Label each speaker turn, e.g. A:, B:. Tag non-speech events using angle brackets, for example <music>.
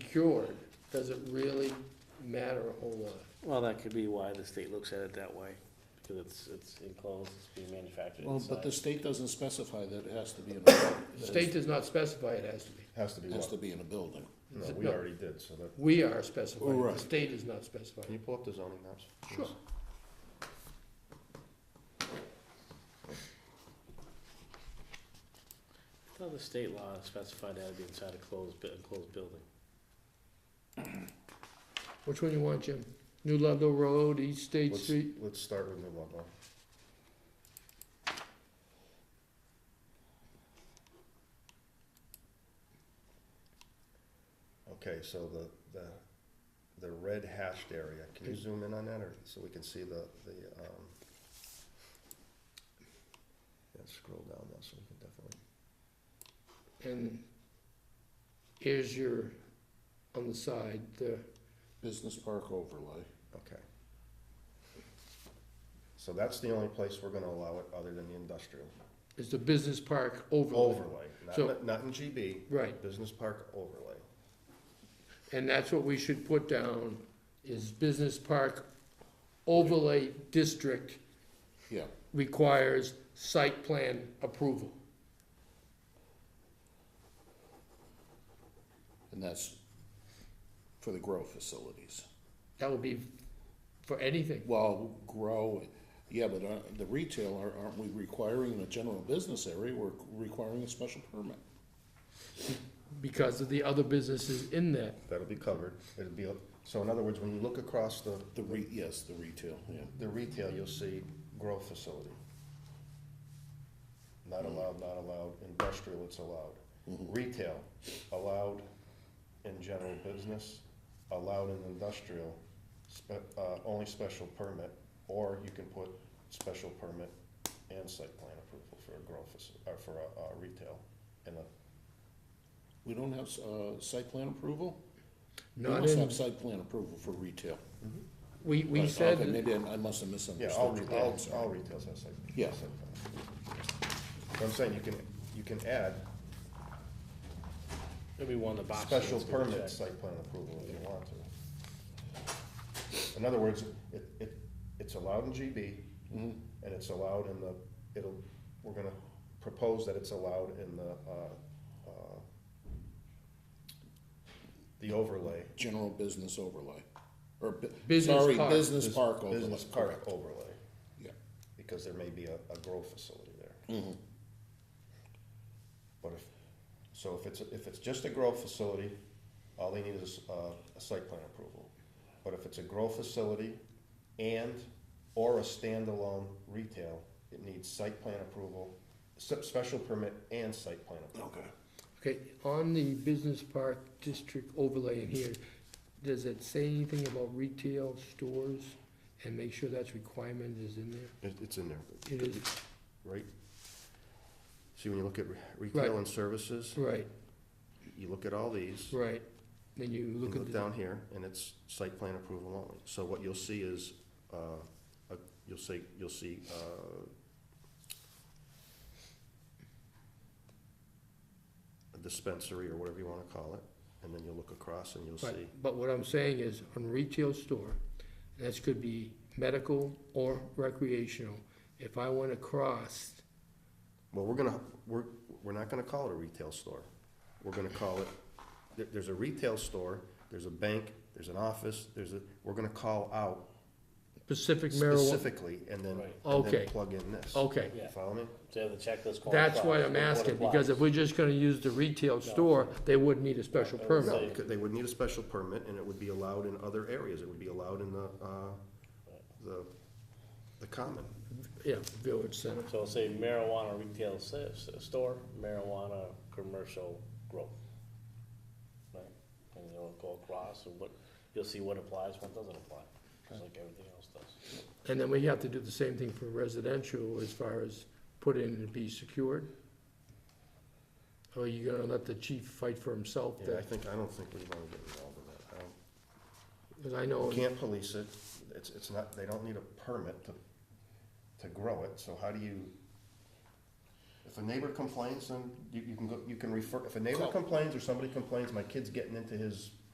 A: secured, does it really matter a whole lot?
B: Well, that could be why the state looks at it that way, because it's, it's enclosed, it's being manufactured
C: Well, but the
B: inside.
C: state doesn't specify that it has to be in a, building.
A: <coughs> The state does not specify it has to be.
D: Has to be
C: It has to
D: what?
C: be in a building.
D: No,
A: Is it-
D: we
A: no.
D: already did, so that.
A: We are specifying, it.
C: Right.
A: the state is not specifying.
D: you pull up the zoning maps?
A: it. Sure.
B: I thought the state law specified that it'd be inside a closed, bu- enclosed building.
A: Which one you want, Jim? New Ludlow Road, East State
D: Let's,
A: Street?
D: let's start with New Ludlow. Okay, so the, the, the red hashed area, can you zoom in on that, or, so we can see the, the, um, yeah, scroll down now, so we can definitely,
A: And here's your, on the side, the,
C: Business park overlay.
D: okay. So that's the only place we're gonna allow it, other than the industrial.
A: is the business park overlay.
D: Overlay,
A: So-
D: not, not in GB,
A: Right,
D: business park overlay.
A: and that's what we should put down, is business park overlay district
C: Yeah,
A: requires site plan approval.
C: and that's for the grow facilities.
A: That would be for anything.
C: Well, grow, yeah, but uh, the retailer, aren't we requiring in a general business area, we're requiring a special permit?
A: because of the other businesses in that.
D: That'll be covered. It'll be, so in other words, when you look across the,
C: The re, yes, the retail, yeah.
D: the retail, you'll see grow facility. Not allowed, not allowed. Industrial, it's allowed. Retail, allowed in general business, allowed in industrial, spe- uh, only special permit, or you can put special permit and site plan approval for a grow faci- or for a, uh, retail in a
C: We don't have, uh, site plan approval? We
A: Not
C: must have
A: in,
C: site plan approval for retail.
A: we, we
C: Right,
A: said,
C: okay,
A: that-
C: Maybe I I must have
D: Yeah,
C: misunderstood.
D: all,
C: you
D: re-
C: there,
D: all,
C: I'm sorry.
D: all retails have site.
C: Yeah.
D: site plans. So I'm saying you can, you can add
B: Maybe one of the boxes.
D: special
B: that's gonna
D: permit
B: check.
D: site plan approval if you want to. In other words, it, it, it's allowed in GB,
C: Mhm.
D: and it's allowed in the, it'll, we're gonna propose that it's allowed in the, uh, uh, the overlay.
C: General business overlay, or, bu-
A: Business
C: sorry,
A: park.
C: business park overlay.
D: Business park
C: correct.
D: overlay,
C: Yeah,
D: because there may be a, a grow facility there.
C: mhm,
D: But if, so if it's, if it's just a grow facility, all they need is, uh, a site plan approval. But if it's a grow facility and, or a standalone retail, it needs site plan approval, se- special permit and site plan approval.
C: okay.
A: okay, on the business park district overlay in here, does it say anything about retail stores? And make sure that's requirement is in there?
D: It's in there,
A: It is,
D: right? See, when you look at re-
A: Right.
D: retail and services,
A: right,
D: you look at all these,
A: right. Then you
D: you
A: look at
D: look
A: the,
D: down here, and it's site plan approval only. So what you'll see is, uh, a- you'll see, you'll see, uh, a dispensary or whatever you wanna call it, and then you'll look across and you'll see,
A: but, but what I'm saying is, on retail store, that could be medical or recreational. If I went across,
D: well, we're gonna, we're, we're not gonna call it a retail store. We're gonna call it, there, there's a retail store, there's a bank, there's an office, there's a, we're gonna call out
A: Pacific marijuana,
D: specifically, and then,
B: Right.
D: and
A: Okay.
D: then plug in this.
A: okay.
B: Yeah,
D: Follow me?
B: so the checklist. qualifies,
A: That's why
B: what
A: I'm asking, because if
B: applies.
A: we're just gonna use the retail store, they would need a special
B: I would
A: permit.
D: No,
B: Right.
D: because they would need a special permit, and it would be allowed in other areas, it would be allowed in the, uh, the, the common.
A: Yeah, village center.
B: So say marijuana retail s- s- store, marijuana commercial growth. Right, and you'll go across and what, you'll see what applies, what doesn't apply, just like everything else does.
A: And then we have to do the same thing for residential as far as put in and be secured? Or are you gonna let the chief fight for himself?
D: Yeah, I
A: that-
D: think, I don't think we wanna get involved in that. I don't-
A: Cause I know,
D: We can't police it, it's, it's not, they don't need a permit to, to grow it, so how do you? If a neighbor complains, then you, you can go, you can refer, if a neighbor
C: Call.
D: complains or somebody complains, my kid's getting into his